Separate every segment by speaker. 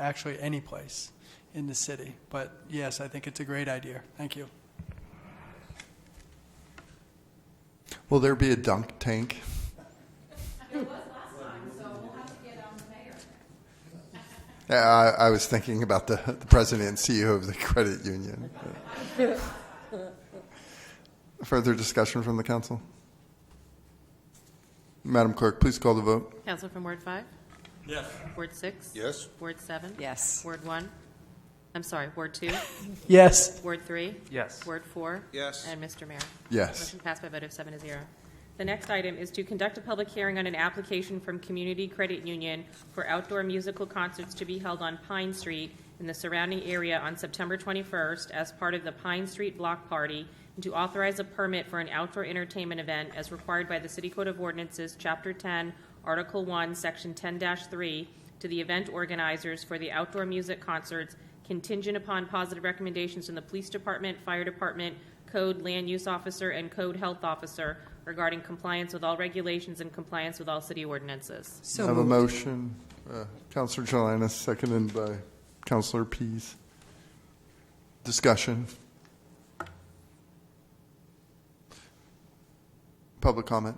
Speaker 1: actually any place in the city. But yes, I think it's a great idea. Thank you.
Speaker 2: Will there be a dunk tank? There was last time, so we'll have to get on the mayor. I, I was thinking about the, the president and CEO of the credit union. Further discussion from the council? Madam Clerk, please call the vote.
Speaker 3: Counsel from Ward 5? Yes. Ward 6?
Speaker 4: Yes.
Speaker 3: Ward 7?
Speaker 5: Yes.
Speaker 3: Ward 1? I'm sorry, Ward 2?
Speaker 1: Yes.
Speaker 3: Ward 3?
Speaker 6: Yes.
Speaker 3: Word four?
Speaker 4: Yes.
Speaker 3: And Mr. Mayor?
Speaker 2: Yes.
Speaker 3: Motion passed by a vote of seven to zero. The next item is to conduct a public hearing on an application from Community Credit Union for outdoor musical concerts to be held on Pine Street and the surrounding area on September 21st as part of the Pine Street Block Party, and to authorize a permit for an outdoor entertainment event as required by the City Code of Ordinances, Chapter 10, Article 1, Section 10-3, to the event organizers for the outdoor music concerts contingent upon positive recommendations from the police department, fire department, code land use officer, and code health officer regarding compliance with all regulations and compliance with all city ordinances.
Speaker 2: I
Speaker 5: So
Speaker 2: have a
Speaker 5: moved.
Speaker 2: motion. Uh, Councilor Jelinas, seconded by Councilor Pease. Discussion. Public comment.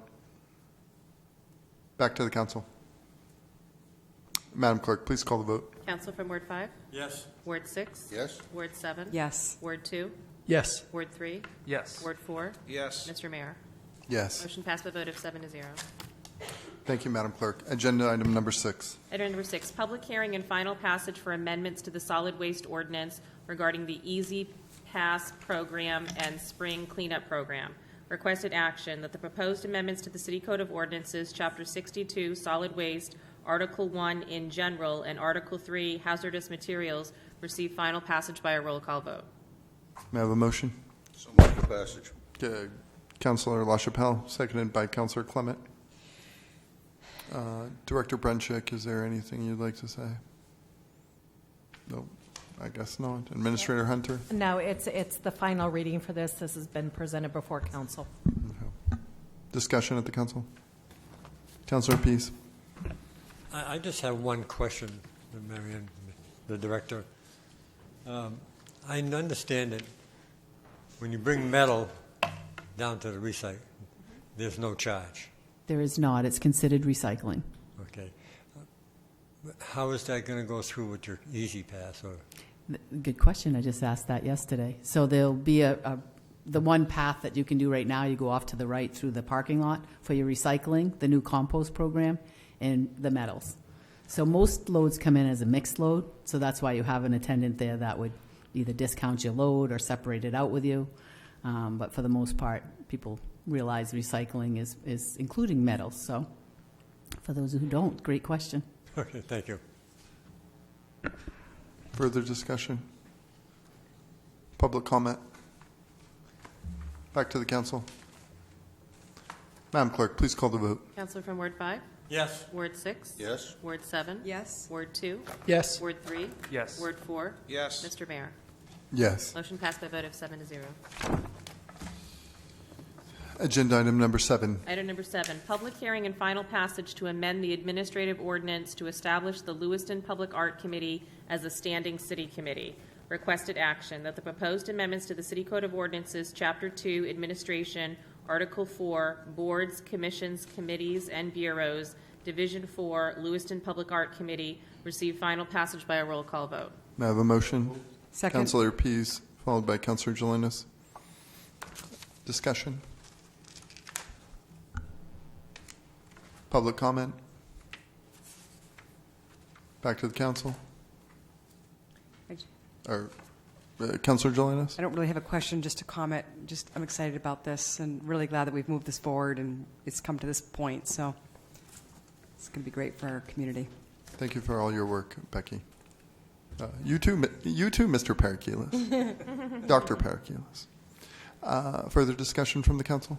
Speaker 2: Back to the council. Madam Clerk, please call the vote.
Speaker 3: Council from Ward 5? Yes. Ward 6?
Speaker 4: Yes.
Speaker 3: Ward 7?
Speaker 5: Yes.
Speaker 3: Ward 2?
Speaker 1: Yes.
Speaker 3: Ward 3?
Speaker 6: Yes.
Speaker 3: Ward 4?
Speaker 4: Yes.
Speaker 3: Mr. Mayor?
Speaker 2: Yes.
Speaker 3: Motion passed by a vote of seven to zero.
Speaker 2: Thank you, Madam Clerk. Agenda item number six.
Speaker 3: Item number six, public hearing and final passage for amendments to the solid waste ordinance regarding the Easy Pass Program and Spring Cleanup Program. Requested action that the proposed amendments to the City Code of Ordinances, Chapter 62, Solid Waste, Article 1 in general, and Article 3, Hazardous Materials, receive final passage by a roll call vote.
Speaker 2: May I have a motion?
Speaker 4: So much for passage.
Speaker 2: Uh, Councilor LaChapelle, seconded by Councilor Clement. Uh, Director Brenchek, is there anything you'd like to say? Nope, I guess not. Administrator Hunter?
Speaker 7: No, it's, it's the final reading for this. This has been presented before council.
Speaker 2: Discussion at the council? Councilor Pease?
Speaker 8: I, I just have one question, Marion, the director. Um, I understand that when you bring metal down to the recycle, there's no charge,
Speaker 9: There is not. It's considered recycling.
Speaker 8: okay? How is that going to go through with your Easy Pass or?
Speaker 9: Th- Good question. I just asked that yesterday. So there'll be a, a the one path that you can do right now. You go off to the right through the parking lot for your recycling, the new compost program, and the metals. So most loads come in as a mixed load. So that's why you have an attendant there that would either discount your load or separate it out with you. Um, but for the most part, people realize recycling is is including metals. So for those who don't, great question.
Speaker 8: Okay, thank you.
Speaker 2: Further discussion? Public comment? Back to the council. Madam Clerk, please call the vote.
Speaker 3: Counselor from Ward 5?
Speaker 8: Yes.
Speaker 3: Ward 6?
Speaker 4: Yes.
Speaker 3: Ward 7?
Speaker 5: Yes.
Speaker 3: Ward 2?
Speaker 1: Yes.
Speaker 3: Ward 3?
Speaker 6: Yes.
Speaker 3: Ward 4?
Speaker 4: Yes.
Speaker 3: Mr. Mayor?
Speaker 2: Yes.
Speaker 3: Motion passed by a vote of seven to zero.
Speaker 2: Agenda item number seven.
Speaker 3: Item number seven, public hearing and final passage to amend the administrative ordinance to establish the Lewiston Public Art Committee as a standing city committee. Requested action that the proposed amendments to the City Code of Ordinances, Chapter Two, Administration, Article Four, Boards, Commissions, Committees, and Bureaus, Division Four, Lewiston Public Art Committee, receive final passage by a roll call vote.
Speaker 2: May I have a motion?
Speaker 5: Second.
Speaker 2: Councilor Pease, followed by Councilor Jelinas. Discussion? Public comment? Back to the council?
Speaker 5: I
Speaker 2: Or, uh, Councilor Jelinas?
Speaker 5: I don't really have a question, just a comment. Just, I'm excited about this and really glad that we've moved this forward and it's come to this point, so it's going to be great for our community.
Speaker 2: Thank you for all your work, Becky. Uh, You too, Mi- you too, Mr. Parakilis. Dr. Parakilis. Uh, Further discussion from the council?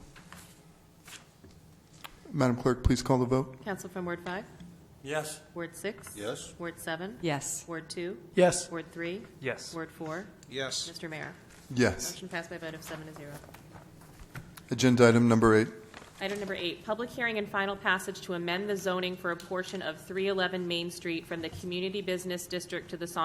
Speaker 2: Madam Clerk, please call the vote.
Speaker 3: Counsel from Ward five?
Speaker 6: Yes.
Speaker 3: Ward six?
Speaker 4: Yes.
Speaker 3: Ward seven?
Speaker 5: Yes.
Speaker 3: Ward two?
Speaker 1: Yes.
Speaker 3: Ward three?
Speaker 6: Yes.
Speaker 3: Word four?
Speaker 4: Yes.
Speaker 3: Mr. Mayor?
Speaker 2: Yes.
Speaker 3: Motion passed by a vote of seven to zero.
Speaker 2: Agenda item number eight.
Speaker 3: Item number eight, public hearing and final passage to amend the zoning for a portion of 311 Main Street from the Community Business District to the Saunders